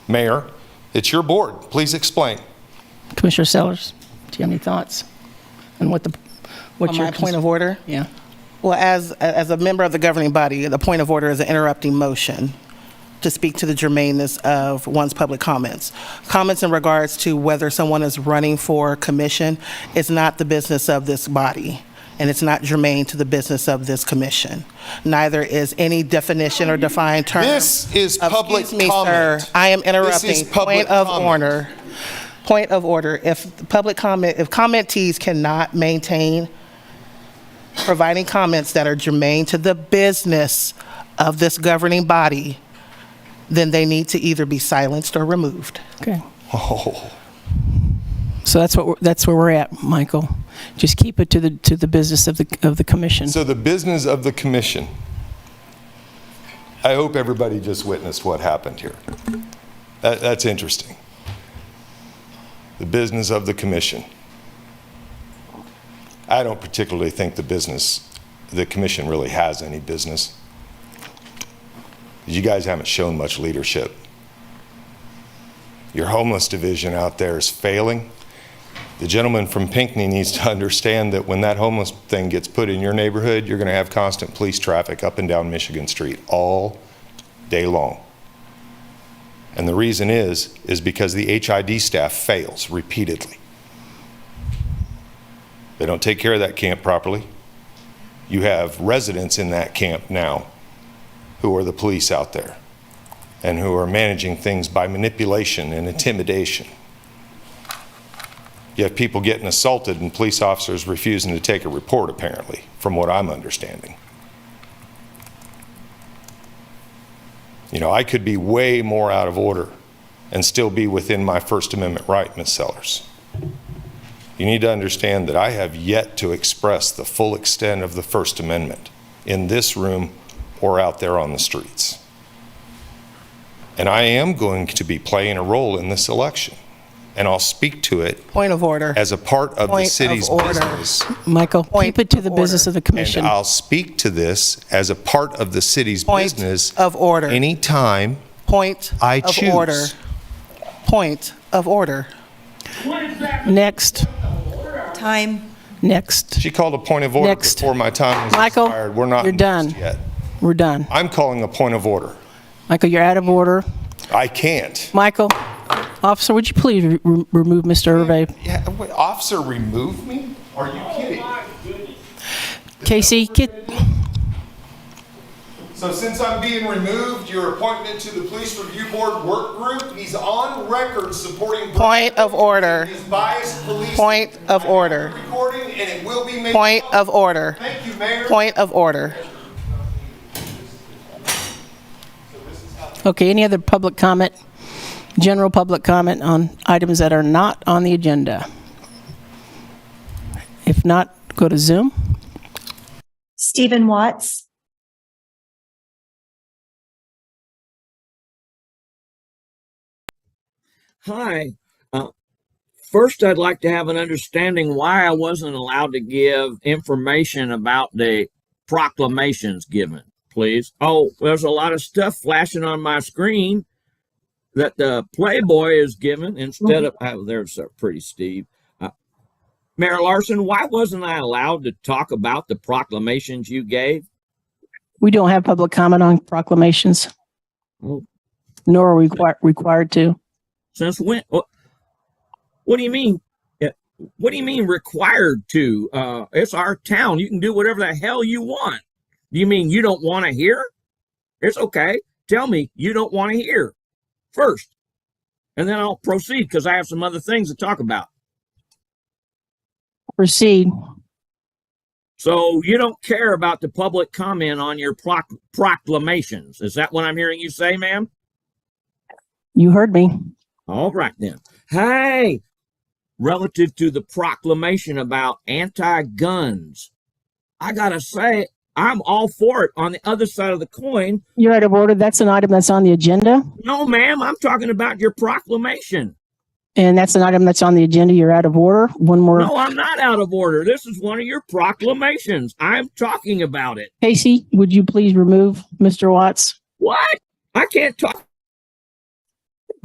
Mayor, it's your board. Please explain. Commissioner Sellers, do you have any thoughts on what the, what On your? my cons- point of order? Yeah. Well, as, as a member of the governing body, the point of order is an interrupting motion to speak to the germaneness of one's public comments. Comments in regards to whether someone is running for commission is not the business of this body, and it's not germane to the business of this commission. Neither is any definition or defined term. This is public Excuse me, sir. comment. I am This is interrupting. public Point of comment. order. Point of order. If the public comment, if commentees cannot maintain providing comments that are germane to the business of this governing body, then they need to either be silenced or removed. Okay. Oh, So that's what, we're- that's where we're at, Michael. Just keep it to the, to the business of the, of the commission. so the business of the commission. I hope everybody just witnessed what happened here. That, that's interesting. The business of the commission. I don't particularly think the business, the commission really has any business. You guys haven't shown much leadership. Your homeless division out there is failing. The gentleman from Pinckney needs to understand that when that homeless thing gets put in your neighborhood, you're going to have constant police traffic up and down Michigan Street all day long. And the reason is, is because the HID staff fails repeatedly. They don't take care of that camp properly. You have residents in that camp now who are the police out there and who are managing things by manipulation and intimidation. You have people getting assaulted and police officers refusing to take a report, apparently, from what I'm understanding. You know, I could be way more out of order and still be within my First Amendment right, Ms. Sellers. You need to understand that I have yet to express the full extent of the First Amendment in this room or out there on the streets. And I am going to be playing a role in this election, and I'll speak to it Point of order. as a part of the Point of city's order. business. Michael, Point keep it to the of business order. of And the commission. I'll speak to this as a part of the city's Point business. of order. Anytime Point I of order. choose. Point of order. Next, Time. next. She called a point of order Next. before my time was Michael, expired. We're not you're next done. yet. We're done. I'm calling a point of order. Michael, you're out of order. I can't. Michael, officer, would you please re- re- remove Mr. Irve? Yeah, wait, Officer, remove me? Are you kidding? Casey, get, So since I'm being removed, your appointment to the Police Review Board Work Group, he's on record supporting. Point of order. His biased police. Point of order. Recording, and it will be made. Point of order. Thank you, Mayor. Point of order. okay, any other public comment? General public comment on items that are not on the agenda? If not, go to Zoom. Stephen Watts. Hi. Uh, first, I'd like to have an understanding why I wasn't allowed to give information about the proclamations given, please. Oh, there's a lot of stuff flashing on my screen that the Playboy is given instead of. Oh, there's a pretty Steve. Uh, Mayor Larson, why wasn't I allowed to talk about the proclamations you gave? We don't have public comment on proclamations, Well, nor are we requir- required to. Since when? What, what do you mean? Yeah, What do you mean required to? Uh, it's our town. You can do whatever the hell you want. Do you mean you don't want to hear? It's okay. Tell me you don't want to hear first, and then I'll proceed because I have some other things to talk about. Proceed. So you don't care about the public comment on your proc- proclamations. Is that what I'm hearing you say, ma'am? You heard me. All right then. Hey, relative to the proclamation about anti-guns, I gotta say I'm all for it. On the other side of the coin, You're out of order. That's an item that's on the agenda, no, ma'am, I'm talking about your proclamation. and that's an item that's on the agenda. You're out of order. One more. No, I'm not out of order. This is one of your proclamations. I'm talking about it. Casey, would you please remove Mr. Watts? What? I can't talk